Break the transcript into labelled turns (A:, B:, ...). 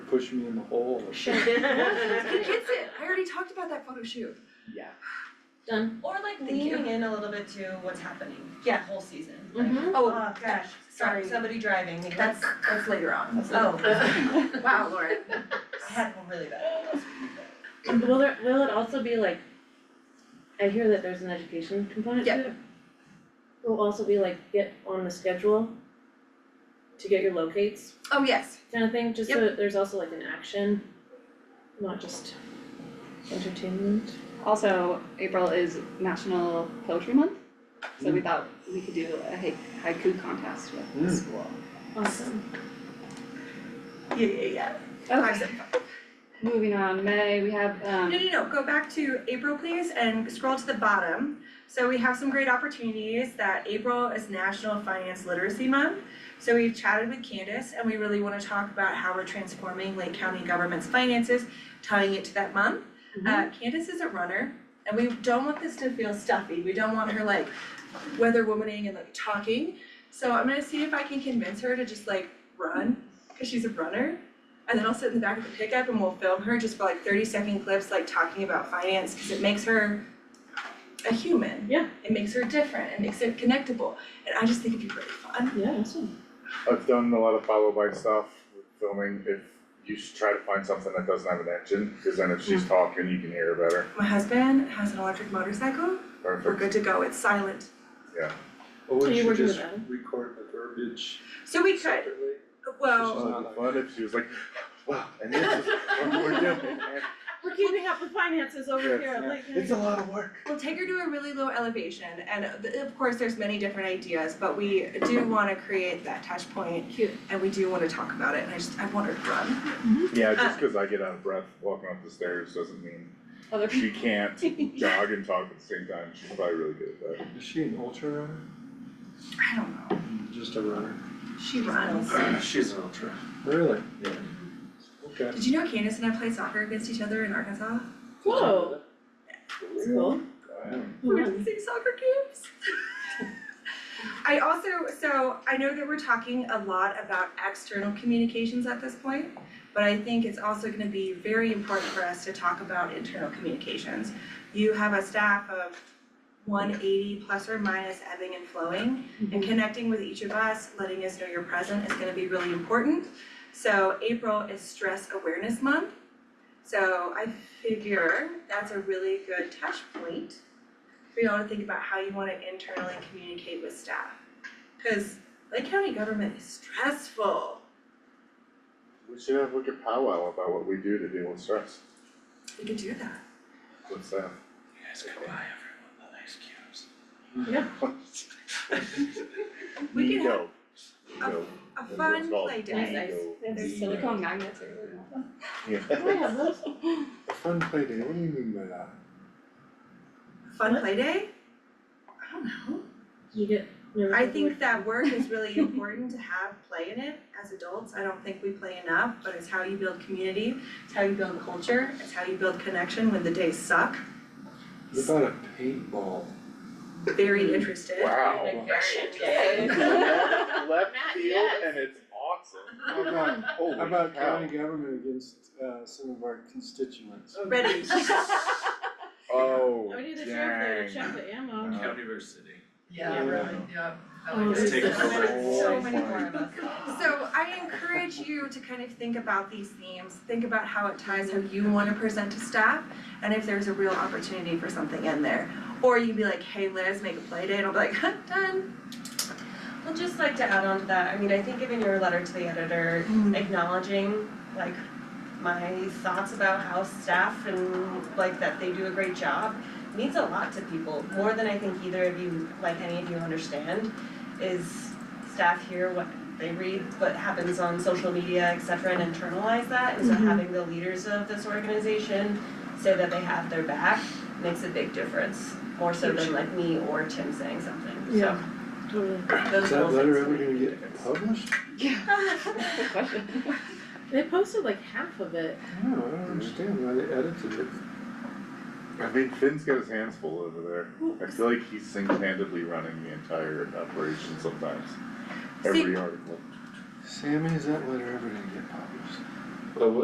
A: push me in the hole.
B: He gets it, I already talked about that photo shoot.
C: Yeah.
D: Done.
E: Or like
B: Thank
E: leaning in a little bit to what's happening, the
B: Yeah.
E: whole season.
D: Mhm.
E: Oh
B: Oh,
E: gosh, sorry,
B: sorry.
E: somebody driving, like,
B: That's-
E: that's that's later on, that's later.
B: Oh, wow, Laura.
E: I had one really bad.
D: Will there, will it also be like, I hear that there's an education component to
B: Yep.
D: it? Will also be like, get on the schedule to get your locates
B: Oh, yes,
D: kind of thing, just so that there's also like an action, not just entertainment.
C: Also, April is National Poetry Month, so we thought we could do a hai- haiku contest with
A: Mm.
C: the school.
D: Awesome.
E: Yeah, yeah, yeah.
B: I
C: Okay,
B: said,
C: moving on, May, we have,
E: No,
C: um,
E: no, no, go back to April, please, and scroll to the bottom. So we have some great opportunities that April is National Finance Literacy Month. So we've chatted with Candace and we really wanna talk about how we're transforming Lake County government's finances, tying it to that month. Uh, Candace is a runner and we don't want this to feel stuffy. We don't want her like weather womaning and like talking. So I'm gonna see if I can convince her to just like run, cause she's a runner. And then I'll sit in the back of the pickup and we'll film her just for like thirty second clips, like talking about finance, cause it makes her a human.
D: Yeah.
E: It makes her different, it makes her connectable, and I just think it'd be really fun.
D: Yeah, awesome.
F: I've done a lot of follow by stuff with filming, if you should try to find something that doesn't have an engine, cause then if she's talking, you can hear her better,
E: My husband has an electric motorcycle, we're
F: perfect.
E: good to go, it's silent.
A: Or
D: So
A: would
D: you're
A: you
D: working with
A: just
D: them?
A: record the verbiage
E: So we could,
A: separately?
E: well,
F: It'd be fun if she was like, wow, and this is what we're doing,
D: We're keeping up with finances over
F: Yes,
D: here,
A: yeah.
D: like.
F: it's a lot of work.
E: We'll take her to a really low elevation, and uh, th- of course, there's many different ideas, but we do want to create that touch point,
D: Cute.
E: and we do want to talk about it. And I just I want her to run.
F: Yeah, just cause I get out of breath walking up the stairs doesn't mean
C: other people.
F: she can't jog and talk at the same time, she's probably really good at that.
A: Is she an ultra runner?
E: I don't know.
A: Just a runner.
E: She runs.
A: She's an ultra. Really? Yeah. Okay.
E: Did you know Candace and I played soccer against each other in Arkansas?
D: Whoa. That's cool.
E: We were at the same soccer games. I also, so I know that we're talking a lot about external communications at this point, but I think it's also gonna be very important for us to talk about internal communications. You have a staff of one eighty plus or minus ebbing and flowing, and connecting with each of us, letting us know you're present is gonna be really important. So April is Stress Awareness Month, so I figure that's a really good touch point for y'all to think about how you wanna internally communicate with staff. Cause Lake County government is stressful.
F: We should have like a powwow about what we do to deal with stress,
E: We could do that.
F: what's that?
E: We could have
F: Ego. Ego.
E: a
F: That's what
E: fun
F: it's called.
E: play day.
D: Nice, nice.
F: Ego.
C: There's silicone magnets everywhere.
D: Oh,
F: Yeah.
D: yeah, those-
F: A Fun play day, what do you mean by that?
E: A Fun play day? I don't know.
D: You get. no,
E: I
D: you
E: think that work is really important to have play in it as adults. I don't think we play enough, but it's how you build community, it's how you build culture, it's how you build connection when the days suck.
A: What about a paintball?
E: Very interested.
F: Wow. Left
D: Matt,
F: field
D: yes.
F: and it's awesome.
A: How about,
F: Holy
A: how about
F: cow.
A: county government against uh some of our constituents?
E: Ready?
F: Oh,
D: would- I would do the sheriff there
F: dang.
D: to check the ammo.
F: Uh,
G: County versus city.
A: Yeah.
G: really,
H: yeah.
D: Oh,
G: It's
D: this
G: taken
D: is-
G: over.
E: So many
F: Oh my
E: more of us. So I encourage you to kind of think about these themes, think about how it ties how you want to present to staff, and if there's a real opportunity for something in there. Or you'd be like, hey Liz, make a play date, and I'll be like, huh, done.
I: I'd just like to add on to that, I mean, I think giving your letter to the editor,
E: Mm-hmm.
I: acknowledging like my thoughts about how staff and like that they do a great job means a lot to people, more than I think either of you, like any of you understand, is staff hear what they read, what happens on social media, et cetera, and internalize that, and so
D: Mhm.
I: having the leaders of this organization say that they have their back makes a big difference, more so than like me or Tim saying something, so.
D: Yeah. Totally.
I: Those
A: Is
I: little
A: that letter
I: things
A: ever
I: make a
A: gonna
I: big
A: get
I: difference.
A: published?
C: That's the question.
D: They posted like half of it.
A: I don't know, I don't understand why they edited it.
F: I mean, Finn's got his hands full over there. I feel like he's single-handedly running the entire operation sometimes.
E: See-
F: Every article.
A: Sammy, is that letter ever gonna get published?
G: But